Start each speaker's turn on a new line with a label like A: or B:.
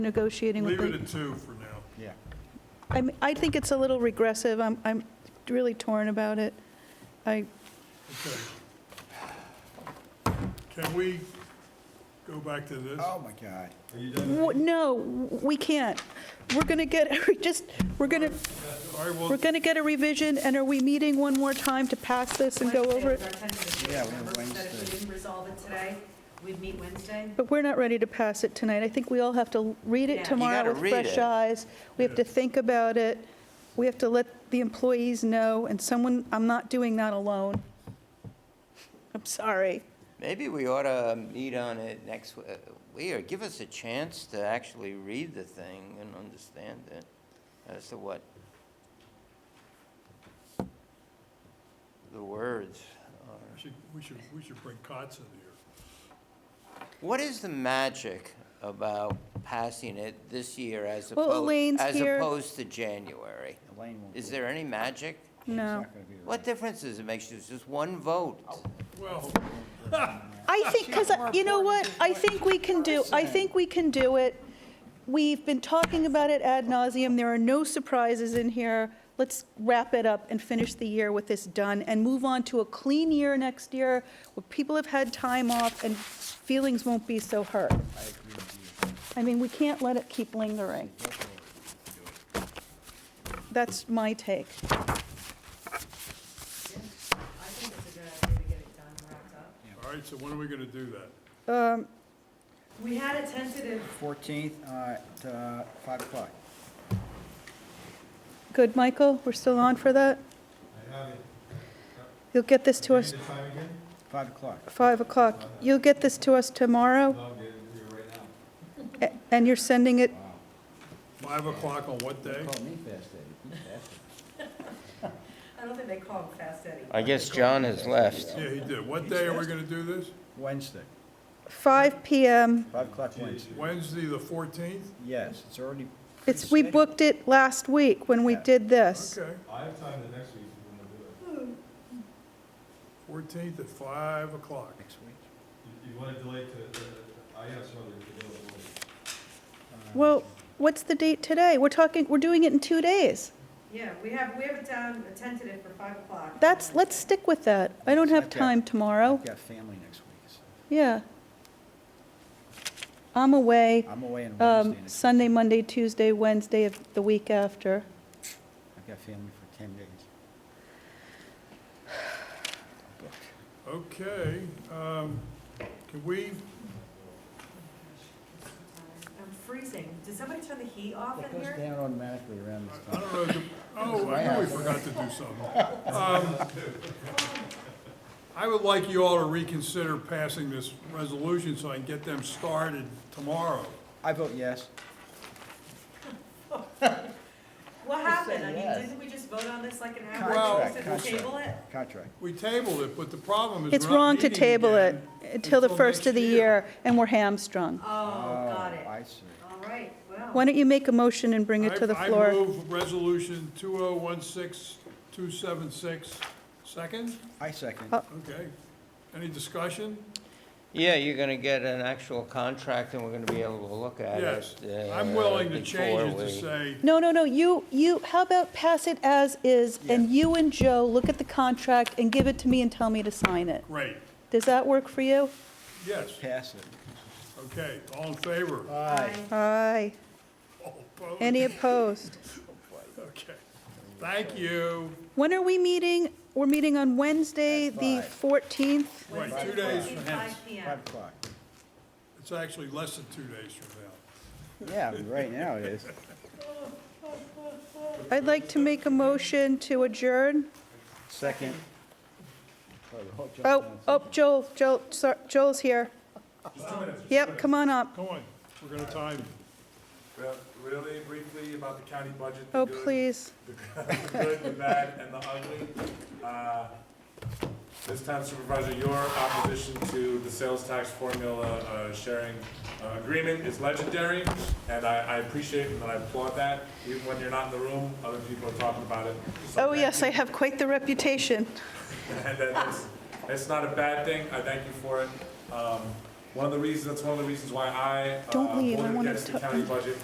A: negotiating with
B: Leave it
A: the...
B: at two for now.
C: Yeah.
A: I'm- I think it's a little regressive. I'm, I'm really torn about it. I,
B: Okay. Can we go back to this?
C: Oh, my God.
A: w- no, we can't. We're going to get, we just, we're going to,
B: I will,
A: we're going to get a revision, and are we meeting one more time to pass this and go over
D: Wednesday
A: it?
D: is our tentative date,
C: Yeah,
D: remember,
C: we're
D: so that if
C: Wednesday.
D: we didn't resolve it today, we'd meet Wednesday.
A: But we're not ready to pass it tonight. I think we all have to read
D: Yeah.
A: it
D: You
A: tomorrow
E: gotta
A: with
E: read
A: fresh
E: it.
A: eyes. We have to think about it. We have to let the employees know, and someone, I'm not doing that alone. I'm sorry.
E: Maybe we ought to meet on it next, w- uh, we, or give us a chance to actually read the thing and understand it as to what the words
B: we
E: are.
B: should, we should, we should bring Kotz in here.
E: What is the magic about passing it this year as
A: Well,
E: opposed,
A: Elaine's
E: as
A: here.
E: opposed to January?
C: Elaine won't
E: Is
C: be-
E: there any magic?
C: she's
A: No.
C: not gonna be there.
E: What difference does it make? It's just one vote.
B: Well,
A: I think, because, you know what, I think we can do, I think we can do it. We've been talking about it ad nauseum. there are no surprises in here. Let's wrap it up and finish the year with this done, and move on to a clean year next year, where people have had time off and feelings won't be so hurt.
C: I agree with you.
A: I mean, we can't let it keep lingering. That's my take.
D: Yeah, I think it's a good idea to get it done and wrapped up.
B: all right, so when are we gonna do that?
A: Um,
D: We had a tentative,
C: 14th at uh, 5 o'clock.
A: Good, Michael, we're still on for that?
F: I have it.
A: You'll get this to
F: Give
A: us
F: me the time again?
C: 5 o'clock.
A: 5 o'clock. You'll get this to us tomorrow?
F: No, I'm getting it here right now.
A: A- And you're sending it,
B: Five o'clock on what day?
C: Call me Fast Eddie. You fast
D: I don't think they call him Fast Eddie.
E: I guess John has left.
B: Yeah, he did. What day are we gonna do this?
C: Eddie. Wednesday,
A: 5 PM.
C: 5 o'clock Wednesday.
B: Wednesday, the fourteenth?
C: Yes, it's already.
A: It's, we
C: pre-scheduled.
A: booked it last week when we
C: Yeah.
A: did this.
B: Okay,
F: I have time the next week if you want to do it.
B: fourteenth at five o'clock.
C: Next week.
F: You- You want to delay to, uh, I have some other availability.
A: Well, what's the date today? We're talking, we're doing it in two days.
D: Yeah, we have, we have it down, a tentative for five o'clock.
A: That's, let's stick with that. I don't have
C: Okay.
A: time tomorrow.
C: I've got family next week, so
A: Yeah. I'm away
C: I'm away on Wednesday.
A: um,
C: next-
A: Sunday, Monday, Tuesday, Wednesday of the week after.
C: I've got family for 10 days. I'm booked.
B: Okay, um, can we,
D: I'm freezing. Did somebody turn the heat off
C: It
D: in
C: goes
D: here?
C: down automatically around this
B: I
C: time.
B: don't know, do- oh, I know we forgot to do something. Um, I would like you all to reconsider passing this resolution so I can get them started tomorrow.
C: I vote yes.
D: What happened? I
C: saying
D: mean,
C: yes.
D: didn't we just vote on this like an hour
B: Well-
D: ago?
C: Contract,
D: Said we'll table it?
C: contract, contract.
B: We tabled it, but the problem is
A: It's
B: we're not
A: wrong to
B: meeting
A: table it
B: again
A: until the first
B: next
A: of the year, and we're hamstrung.
D: Oh, got it.
C: I see.
D: All right,
A: Why
D: well,
A: don't you make a motion and bring it to the
B: I-
A: floor?
B: I move Resolution 2016276, second?
C: I second.
A: Uh,
B: Okay. Any discussion?
E: Yeah, you're gonna get an actual contract and we're gonna be able to look at
B: Yes.
E: it.
B: I'm
E: uh,
B: willing to change it
E: before
B: to
E: we-
B: say,
A: No, no, no, you, you, how about pass it as is, and you and Joe look at the contract and give it to me and tell me to sign it.
B: great,
A: Does that work for you?
B: yes,
C: Pass it.
B: okay, all in favor?
D: I
A: Aye.
B: All opposed?
A: Any opposed?
B: Oh, Okay. Thank you.
A: When are we meeting? We're meeting on Wednesday, the
C: At five.
A: 14th.
B: Wait,
D: Wednesday,
B: two days
D: 14th,
B: from now.
D: Five P
C: Five
D: M.
C: o'clock.
B: It's actually less than two days from now.
C: Yeah, right now it is.
A: I'd like to make a motion to adjourn.
C: Second.
A: Oh, oh, Joel, Joel, sor- Joel's here. Yep, come on up.
B: Come on, we're gonna time you.
G: Well, Really briefly about the county budget. the
A: Oh,
G: good,
A: please.
G: The good, the bad, and the ugly. Uh, This time Supervisor, your opposition to the sales tax formula uh, sharing uh, agreement is legendary, and I I appreciate and I applaud that. Even when you're not in the room, other people are talking about it. So
A: Oh,
G: thank
A: yes,
G: you.
A: I have quite the reputation.
G: uh, And that it's, it's not a bad thing, I thank you for it. Um, One of the reasons, that's one of the reasons why I, uh,
A: Don't leave, I
G: voted
A: wanna
G: uh, against the
A: ta-
G: county budget